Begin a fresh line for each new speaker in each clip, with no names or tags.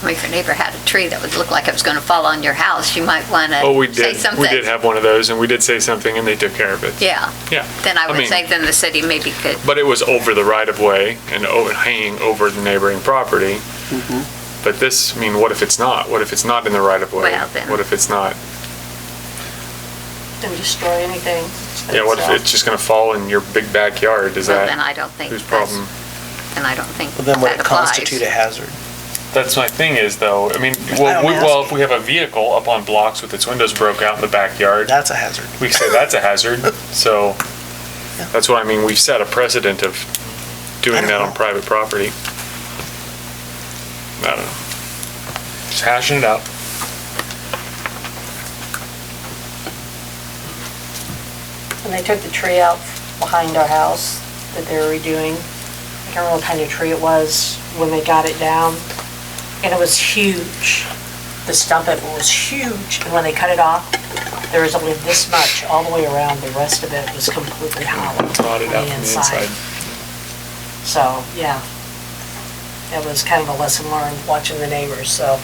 Well, If your neighbor had a tree that would look like it was going to fall on your house, you might want
Oh, we
to say
did,
something.
we did have one of those, and we did say something, and they took care of it.
Yeah,
Yeah.
then I would
mean,
say then the city maybe could,
But it was over the right-of-way and o- hanging over the neighboring property.
Mm-hmm.
But this, I mean, what if it's not? What if it's not in the right-of-way?
Well, then-
What if it's not?
and destroy anything.
Yeah, what if it's just gonna fall in your big backyard? Is
well, then
that
I don't think,
whose
that's-
problem?
then I don't think
Well, then would
that
it constitute a
applies.
hazard?
That's my thing is though, I mean,
I
well,
don't
we-
ask.
well, if we have a vehicle up on blocks with its windows broke out in the backyard,
That's a hazard.
we say that's a hazard, so. That's what I mean, we've set a precedent of
I
doing
don't
that on
know.
private property. I don't know. Just hashing it out.
And they took the tree out behind our house that they were redoing. I can't remember what kind of tree it was when they got it down. And it was huge. The stump of it was huge. And when they cut it off, there was only this much all the way around. The rest of it was completely hollow on
Rotted out from
the
the
inside.
inside.
So, yeah. That was kind of a lesson learned, watching the neighbors, so.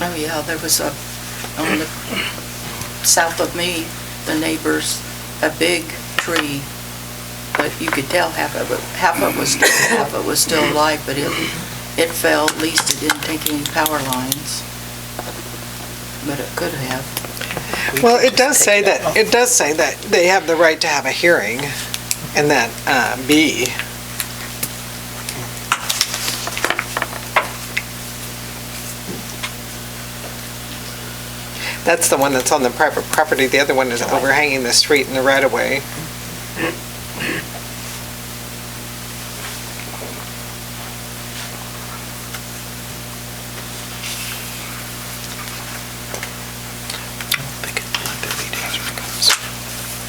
Oh, yeah, there was a, on the, south of me, the neighbors, a big tree, but you could tell half of it, half of it was, dead, half of it was still alive, but it, it fell, at least it didn't take any power lines. But it could have.
We
Well,
could
it does
just
say
take
that,
off.
it does say that they have the right to have a hearing, and that uh, B. That's the one that's on the private property, the other one is overhanging the street in the right-of-way.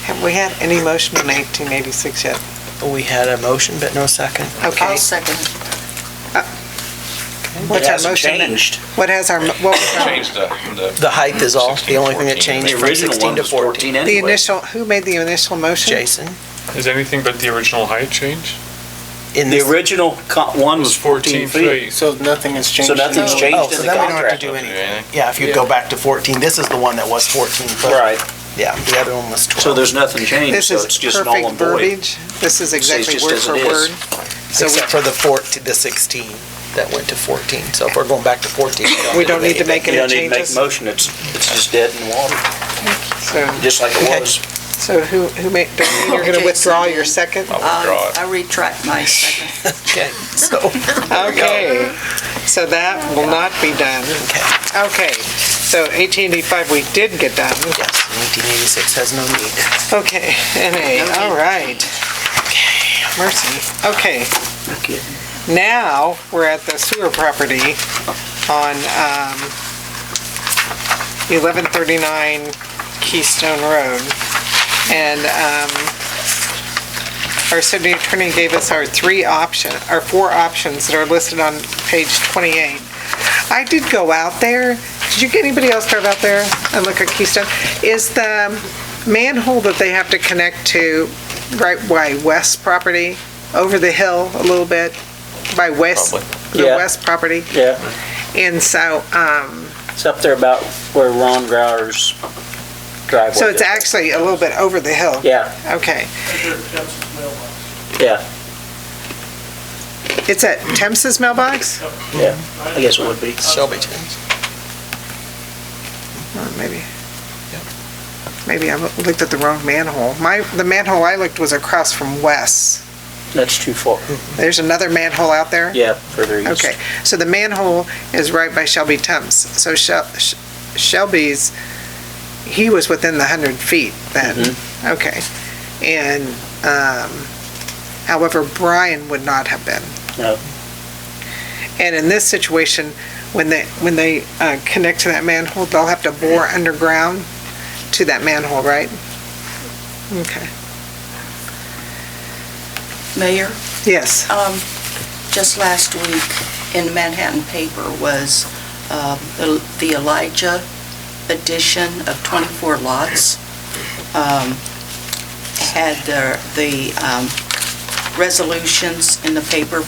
Have we had any motion in 1886 yet?
We had a motion, but no second.
Okay, Uh,
I'll second.
It
What's our
hasn't
motion then?
changed.
what has our, mo- what was our,
Changed the, the.
The height is all, the only thing
16
that changed
to
from 16 to 14.
the initial, who made the initial motion?
Jason?
Is anything but the original height change?
in
The
this-
original co- one was 14 feet.
So nothing has changed?
So nothing's
in-
Oh,
changed
so
in the
then we don't have to
contract.
do
Don't do
anything.
anything.
Yeah, if you go back to 14, this is the one that was 14 foot.
Right,
Yeah, the other one was 12.
so there's nothing changed,
This
so
is
it's just null
perfect
and void.
verbiage, this is exactly
just
word
as
for
it is.
word. So we
Except for the 14, the 16 that went to 14. So if we're going back to 14.
We don't need to make
You
any
don't need to make a
changes.
motion, it's, it's just dead in the water,
So,
just like
Okay.
it was.
so who, who made, Darlene, you're going to
Jason
withdraw your
did.
second?
I'll
I retract my second.
Okay, so,
Oh,
Okay, so that will not be done. Okay, so 1885 we did get done.
yes, 1986 has no need.
Okay, NA, all right. Mercy, okay. Now, we're at the sewer property on um, 1139 Keystone Road. And um, our city attorney gave us our three option, our four options that are listed on page 28. I did go out there. Did you, anybody else drive out there and look at Keystone? Is the manhole that they have to connect to right by West property, over the hill a little bit, by West, the
Yeah.
West property?
Yeah,
And so, um,
it's up there about where Ron Grauer's driveway
so it's actually a little bit over the hill?
Yeah,
Okay.
yeah,
It's at Temps's mailbox?
yeah, I guess it would be.
Shelby James.
Or Maybe. Maybe I looked at the wrong manhole. My, the manhole I looked was across from Wes.
That's too far,
There's another manhole out there?
yeah, further east.
Okay, so the manhole is right by Shelby Temps. So Shel- Sh- Shelby's, he was within the 100 feet then? Okay. And, um, however, Brian would not have been.
No.
And in this situation, when they, when they uh, connect to that manhole, they'll have to bore underground to that manhole, right? Okay,
Mayor?
yes.
Um, Just last week in Manhattan paper was um, the the Elijah edition of 24 lots. um, Had their- the um, resolutions in the paper